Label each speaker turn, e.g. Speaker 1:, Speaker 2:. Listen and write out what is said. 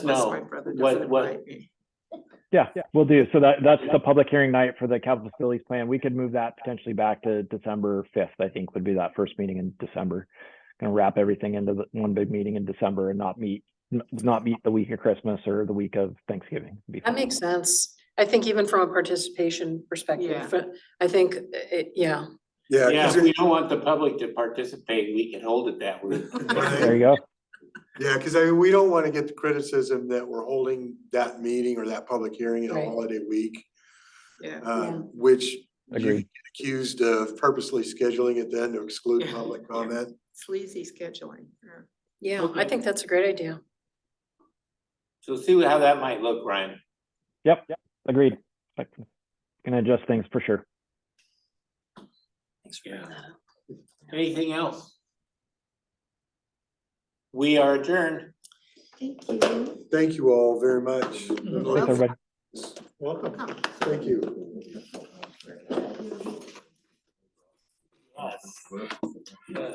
Speaker 1: unless
Speaker 2: No,
Speaker 1: my brother
Speaker 2: what-
Speaker 1: doesn't
Speaker 2: what-
Speaker 1: invite me.
Speaker 3: Yeah, we'll do. So that, that's the public hearing night for the capital facilities plan. We could move that potentially back to December fifth, I think would be that first meeting in December. Gonna wrap everything into the one big meeting in December and not meet, n- not meet the week of Christmas or the week of Thanksgiving. Be
Speaker 4: That
Speaker 3: fine.
Speaker 4: makes sense. I think even from a participation
Speaker 1: Yeah.
Speaker 4: perspective, fr- I think, uh, yeah,
Speaker 5: Yeah.
Speaker 2: Yeah,
Speaker 5: 'cause
Speaker 2: if we
Speaker 5: it-
Speaker 2: don't want the public to participate, we can hold it that way.
Speaker 3: There you go.
Speaker 5: Yeah, because I mean, we don't want to get the criticism that we're holding that meeting or that public hearing in a
Speaker 4: Right.
Speaker 5: holiday week,
Speaker 1: Yeah,
Speaker 4: Yeah.
Speaker 5: um, which you
Speaker 3: Agreed.
Speaker 5: get accused of purposely scheduling it then to exclude
Speaker 1: Yeah.
Speaker 5: public comment.
Speaker 1: sleazy scheduling. yeah.
Speaker 4: yeah, I
Speaker 2: Okay.
Speaker 4: think that's a great idea.
Speaker 2: So see how that might look, Ryan.
Speaker 3: Yep, yep, agreed. I Can can adjust things for sure.
Speaker 4: Thanks for bringing that up.
Speaker 2: Anything else? We are adjourned.
Speaker 5: Thank you all very much.
Speaker 1: Mm-hmm.
Speaker 3: Thanks, everybody.
Speaker 5: Welcome. Thank you.
Speaker 2: Yes.